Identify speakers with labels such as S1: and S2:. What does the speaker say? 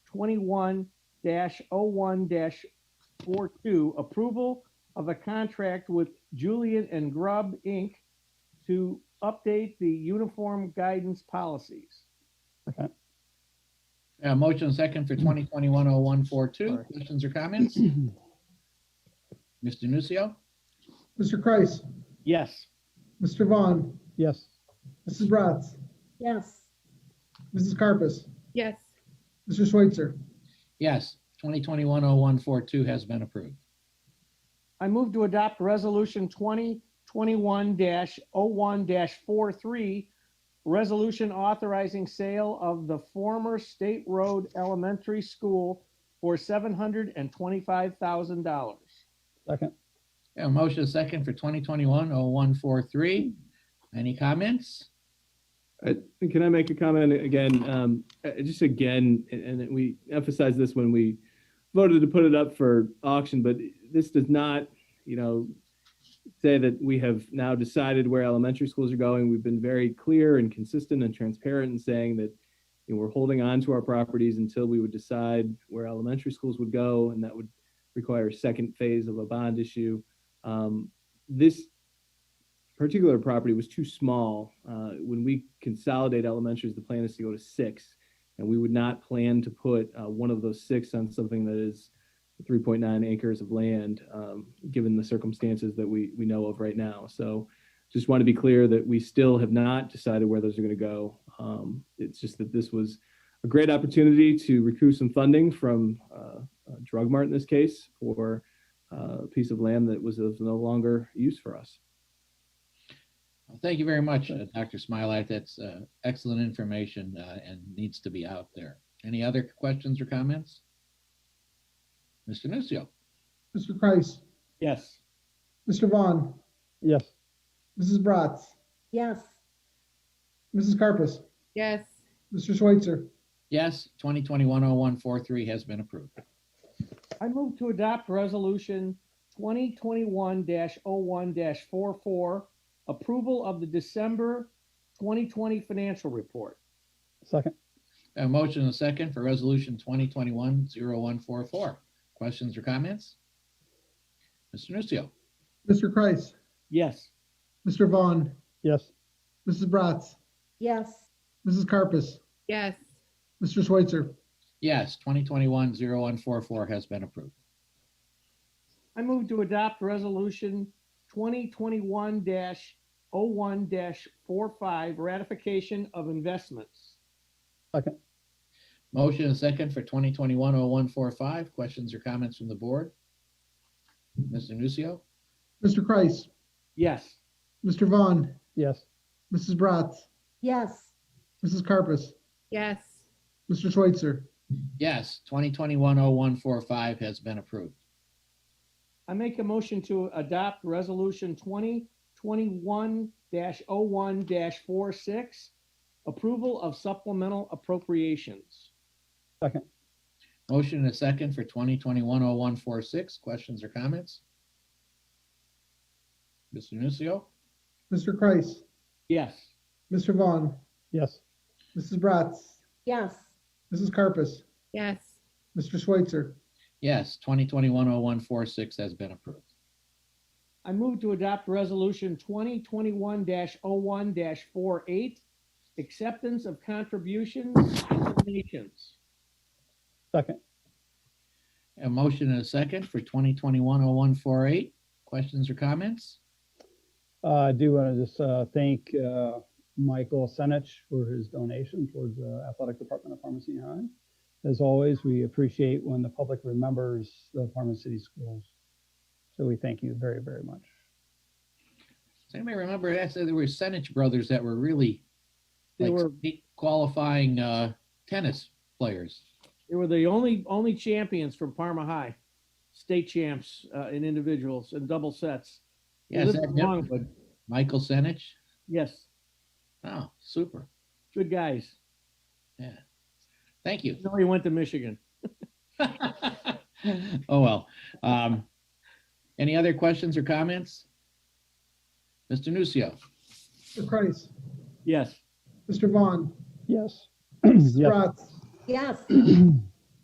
S1: twenty-one dash oh one dash four-two, approval of a contract with Julian and Grubb, Inc. to update the uniform guidance policies.
S2: Uh, motion second for twenty twenty-one oh one four two.
S1: Sorry.
S2: Questions or comments? Mr. Nucio?
S3: Mr. Kreis,
S1: Yes.
S3: Mr. Vaughn,
S4: yes,
S3: Mrs. Bratz,
S5: yes,
S3: Mrs. Carpus,
S6: yes,
S3: Mr. Schweitzer,
S2: Yes, twenty twenty-one oh one four two has been approved.
S1: I move to adopt Resolution 2021-01-43, resolution authorizing sale of the former State Road Elementary School for $725,000.
S4: second,
S2: Yeah, motion second for twenty twenty-one oh one four three. Any comments?
S7: I- Can I make a comment again? Um, uh, Just again, and and we emphasized this when we voted to put it up for auction, but this does not, you know, say that we have now decided where elementary schools are going. We've been very clear and consistent and transparent in saying that you know, we're holding on to our properties until we would decide where elementary schools would go, and that would require a second phase of a bond issue. Um, This particular property was too small. Uh, when we consolidate elementaries, the plan is to go to six, and we would not plan to put uh, one of those six on something that is 3.9 acres of land, um, given the circumstances that we we know of right now. So, just want to be clear that we still have not decided where those are going to go. Um, it's just that this was a great opportunity to recoup some funding from uh, uh, Drug Mart in this case for uh, a piece of land that was of no longer use for us.
S2: Well, Thank you very much, uh, Dr. Smilak. That's uh, excellent information uh, and needs to be out there. Any other questions or comments? Mr. Nucio?
S3: Mr. Kreis,
S1: Yes.
S3: Mr. Vaughn,
S4: yes,
S3: Mrs. Bratz,
S5: yes,
S3: Mrs. Carpus,
S6: yes,
S3: Mr. Schweitzer,
S2: Yes, twenty twenty-one oh one four three has been approved.
S1: I move to adopt resolution 2021-01-44, approval of the December 2020 financial report.
S4: second,
S2: A motion and a second for resolution twenty twenty-one zero one four four. Questions or comments? Mr. Nucio?
S3: Mr. Kreis,
S1: Yes.
S3: Mr. Vaughn,
S4: yes,
S3: Mrs. Bratz,
S5: yes,
S3: Mrs. Carpus,
S6: yes,
S3: Mr. Schweitzer,
S2: Yes, twenty twenty-one zero one four four has been approved.
S1: I move to adopt resolution twenty twenty-one oh one four-five, ratification of investments.
S2: Motion and a second for twenty twenty-one oh one four five. Questions or comments from the board? Mr. Nucio?
S3: Mr. Kreis,
S1: Yes.
S3: Mr. Vaughn,
S4: yes,
S3: Mrs. Bratz,
S5: yes,
S3: Mrs. Carpus,
S6: yes,
S3: Mr. Schweitzer,
S2: Yes, twenty twenty-one oh one four five has been approved.
S1: I make a motion to adopt resolution twenty twenty-one dash oh one four-six, approval of supplemental appropriations.
S2: Motion and a second for twenty twenty-one oh one four six. Questions or comments? Mr. Nucio?
S3: Mr. Kreis,
S1: Yes.
S3: Mr. Vaughn,
S4: yes,
S3: Mrs. Bratz,
S5: yes,
S3: Mrs. Carpus,
S6: yes,
S3: Mr. Schweitzer,
S2: Yes, twenty twenty-one oh one four six has been approved.
S1: I move to adopt resolution twenty twenty-one dash oh one four-eight, acceptance of contributions and donations.
S4: second,
S2: A motion and a second for twenty twenty-one oh one four eight. Questions or comments?
S4: Uh, I do want to just uh, thank uh, Michael Senich for his donation towards the athletic department of Pharmacy High. As always, we appreciate when the public remembers the Pharmacy City Schools. So we thank you very, very much.
S2: Does anybody remember, that's, there were Senich brothers that were really
S1: They
S2: like
S1: were-
S2: state qualifying, uh, tennis players.
S1: They were the only only champions from Parma High, state champs uh, in individuals and double sets.
S2: Yes,
S1: This
S2: that-
S1: is wrong, but
S2: Michael Senich?
S1: yes,
S2: Oh, super.
S1: good guys.
S2: Thank you.
S1: No, he went to Michigan.
S2: Oh, well. Um, any other questions or comments? Mr. Nucio?
S3: Mr. Kreis,
S1: Yes,
S3: Mr. Vaughn,
S4: Yes.
S3: Mrs.
S4: Yes.
S3: Bratz,
S5: yes,